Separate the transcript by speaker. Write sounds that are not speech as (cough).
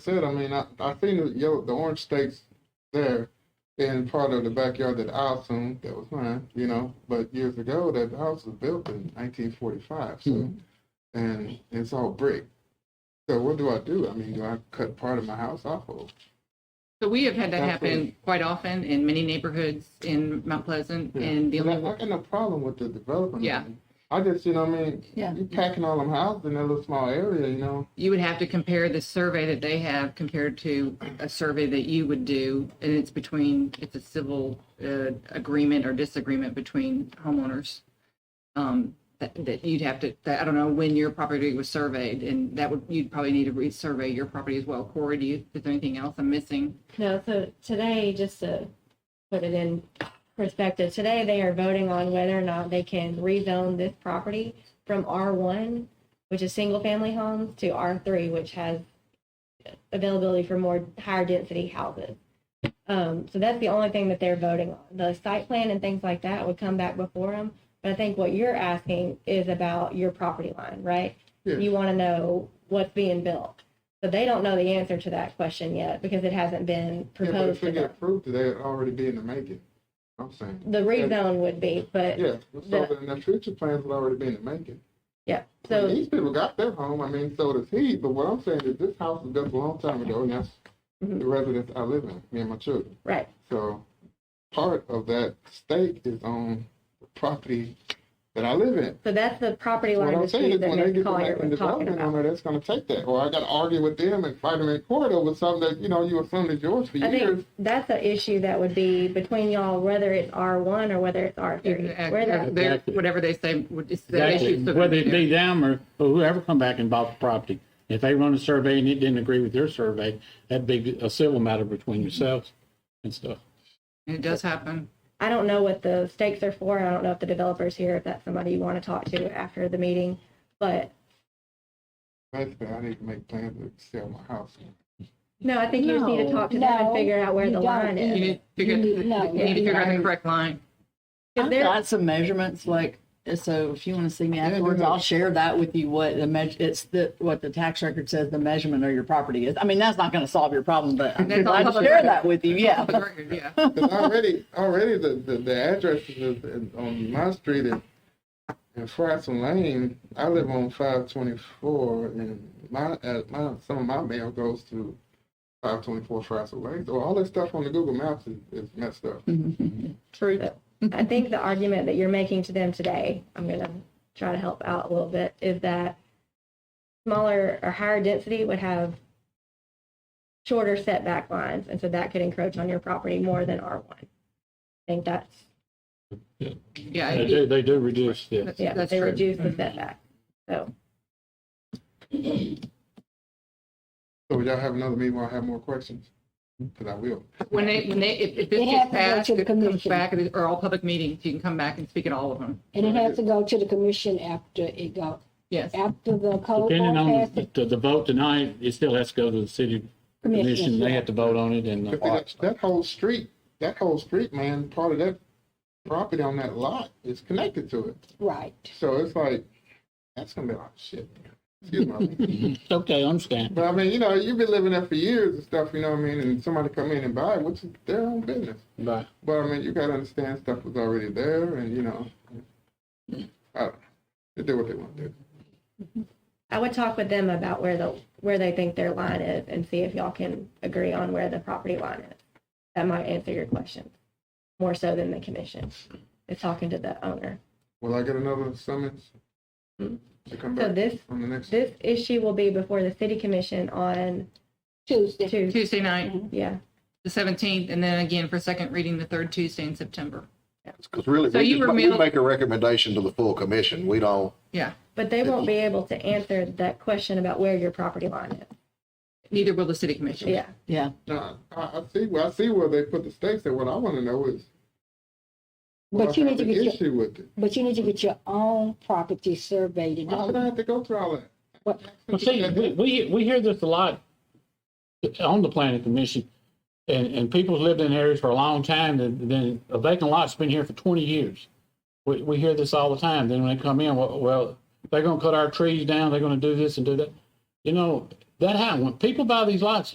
Speaker 1: said, I mean, I, I seen the, yo, the orange steaks there in part of the backyard that I assumed that was mine, you know. But years ago, that house was built in 1945, so and it's all brick. So what do I do? I mean, do I cut part of my house off? Of?
Speaker 2: So we have had that happen quite often in many neighborhoods in Mount Pleasant,
Speaker 1: Yeah.
Speaker 2: and the
Speaker 1: But I-
Speaker 2: only
Speaker 1: I got no problem with the development.
Speaker 2: Yeah.
Speaker 1: I just, you know, what I mean,
Speaker 3: Yeah.
Speaker 1: you packing all them houses in that little small area, you know.
Speaker 2: you would have to compare the survey that they have compared to a survey that you would do, and it's between, it's a civil uh, agreement or disagreement between homeowners. Um, That, that you'd have to, that- I don't know when your property was surveyed, and that would, you'd probably need to re-survey your property as well. Corey, do you, is there anything else I'm missing?
Speaker 3: No, so today, just to put it in perspective, today they are voting on whether or not they can rezone this property from R1, which is single family homes, to R3, which has availability for more higher density houses. Um, so that's the only thing that they're voting on. The site plan and things like that would come back before them. But I think what you're asking is about your property line, right?
Speaker 1: Yeah.
Speaker 3: You want to know what's being built. So they don't know the answer to that question yet because it hasn't been
Speaker 1: Yeah, but if
Speaker 3: proposed
Speaker 1: they
Speaker 3: to
Speaker 1: get
Speaker 3: them.
Speaker 1: approved, they'd already be in the making. I'm saying.
Speaker 3: The rezone would be, but
Speaker 1: Yeah, so then the future plans would already be in the making.
Speaker 3: yeah,
Speaker 1: I mean,
Speaker 3: so,
Speaker 1: these people got their home. I mean, so does he. But what I'm saying is, this house was built a long time ago, and that's
Speaker 3: Mm-hmm.
Speaker 1: the residence I live in, me and my children.
Speaker 3: right,
Speaker 1: So part of that stake is on the property that I live in.
Speaker 3: so that's the property
Speaker 1: What
Speaker 3: line
Speaker 1: I'm saying
Speaker 3: dispute
Speaker 1: is,
Speaker 3: that
Speaker 1: when they
Speaker 3: Ms.
Speaker 1: get the
Speaker 3: Collier
Speaker 1: land
Speaker 3: was talking
Speaker 1: development
Speaker 3: about.
Speaker 1: owner, that's going to take that, or I got to argue with them and fight them in court over something that you know you assumed is yours for
Speaker 3: I
Speaker 1: years.
Speaker 3: think that's an issue that would be between y'all, whether it's R1 or whether it's R3. Where that,
Speaker 2: They're-
Speaker 4: Exactly.
Speaker 2: Whatever they say, would- it's the
Speaker 4: Exactly.
Speaker 2: issue.
Speaker 4: Whether it be them or, or whoever come back and bought the property, if they run a survey and it didn't agree with your survey, that'd be a civil matter between yourselves and stuff.
Speaker 2: It does happen.
Speaker 3: I don't know what the stakes are for. I don't know if the developer's here, if that's somebody you want to talk to after the meeting. But
Speaker 1: Basically, I need to make plans to sell my house.
Speaker 3: no, I think you just need to
Speaker 5: No,
Speaker 3: talk to them and
Speaker 5: no,
Speaker 3: figure out where
Speaker 5: you
Speaker 3: the
Speaker 5: don't
Speaker 3: line
Speaker 2: You
Speaker 3: is.
Speaker 5: either.
Speaker 2: need to figure,
Speaker 5: You need- no,
Speaker 2: you need to
Speaker 5: yeah.
Speaker 2: figure out the correct line.
Speaker 3: If
Speaker 5: I've
Speaker 3: they're-
Speaker 5: got some measurements, like, so if you want to see me
Speaker 1: Yeah, do
Speaker 5: afterwards,
Speaker 1: that.
Speaker 5: I'll share that with you, what the measure, it's the, what the tax record says the measurement of your property is. I mean, that's not going to solve your problem, but I'm
Speaker 2: That's all
Speaker 5: glad to
Speaker 2: public
Speaker 5: share
Speaker 2: record.
Speaker 5: that with you, yeah.
Speaker 2: Public record, (laughs) yeah.
Speaker 1: 'Cause already, already the, the, the addresses is in- on my street in, in Fratson Lane, I live on five twenty-four and my, uh, my, some of my mail goes to five twenty-four Fratson Lane. So all this stuff on the Google Maps is, is messed up.
Speaker 5: True.
Speaker 3: So, I think the argument that you're making to them today, I'm going to try to help out a little bit, is that smaller or higher density would have shorter setback lines, and so that could encroach on your property more than R1. I think that's,
Speaker 2: Yeah,
Speaker 4: They
Speaker 2: it-
Speaker 4: do, they do reduce this.
Speaker 3: yeah,
Speaker 2: That's
Speaker 3: they
Speaker 2: true. Mm-hmm.
Speaker 3: reduce the setback. So,
Speaker 1: So would y'all have another meeting where I have more questions? Cause I will.
Speaker 2: When they, when they, if, if this
Speaker 5: It
Speaker 2: gets
Speaker 5: has to go
Speaker 2: passed,
Speaker 5: to the
Speaker 2: it comes
Speaker 5: commission.
Speaker 2: back, it- or all public meetings, you can come back and speak at all of them.
Speaker 5: And it has to go to the commission after it go,
Speaker 2: Yes.
Speaker 5: after the code
Speaker 4: Depending on the, the, the vote tonight, it still has to go to the city commission. They have to vote on it and.
Speaker 1: But see, that, that whole street, that whole street, man, part of that property on that lot is connected to it.
Speaker 5: Right.
Speaker 1: So it's like, that's gonna be a lot of shit. Excuse my language.
Speaker 4: Okay, I understand.
Speaker 1: But I mean, you know, you've been living there for years and stuff, you know what I mean? And somebody come in and buy it, which is their own business.
Speaker 4: But
Speaker 1: But I mean, you gotta understand stuff was already there and, you know, I don't know. They do what they want to do.
Speaker 3: I would talk with them about where the, where they think their line is and see if y'all can agree on where the property line is. That might answer your question, more so than the commission, is talking to the owner.
Speaker 1: Will I get another summons
Speaker 3: Hmm.
Speaker 1: to come
Speaker 3: So
Speaker 1: back
Speaker 3: this,
Speaker 1: on the next?
Speaker 3: this issue will be before the city commission on
Speaker 5: Tuesday.
Speaker 3: Tuesday,
Speaker 2: Tuesday night,
Speaker 5: Mm-hmm.
Speaker 3: yeah.
Speaker 2: the seventeenth, and then again for second reading, the third Tuesday in September.
Speaker 6: Because really,
Speaker 2: So
Speaker 6: we
Speaker 2: you
Speaker 6: just-
Speaker 2: were
Speaker 6: we
Speaker 2: mailed-
Speaker 6: make a recommendation to the full commission. We don't,
Speaker 2: Yeah,
Speaker 3: But they won't be able to answer that question about where your property line is,
Speaker 2: neither will the city commission.
Speaker 3: yeah.
Speaker 5: Yeah.
Speaker 1: No, I, I see, where- I see where they put the stakes and what I wanna know is. will
Speaker 7: But
Speaker 1: I
Speaker 7: you
Speaker 1: have
Speaker 7: need to
Speaker 1: an
Speaker 7: get your,
Speaker 1: Issue with it.
Speaker 7: but you need to get your own property surveyed and
Speaker 1: Why
Speaker 7: all
Speaker 1: would I
Speaker 7: that.
Speaker 1: have to go through all that?
Speaker 7: What-
Speaker 4: Well, see, we- we, we hear this a lot on the planning commission, and, and people's lived in areas for a long time, then, then a vacant lot's been here for twenty years. We, we hear this all the time, then when they come in, well, well, they're gonna cut our trees down, they're gonna do this and do that. You know, that happened, when people buy these lots,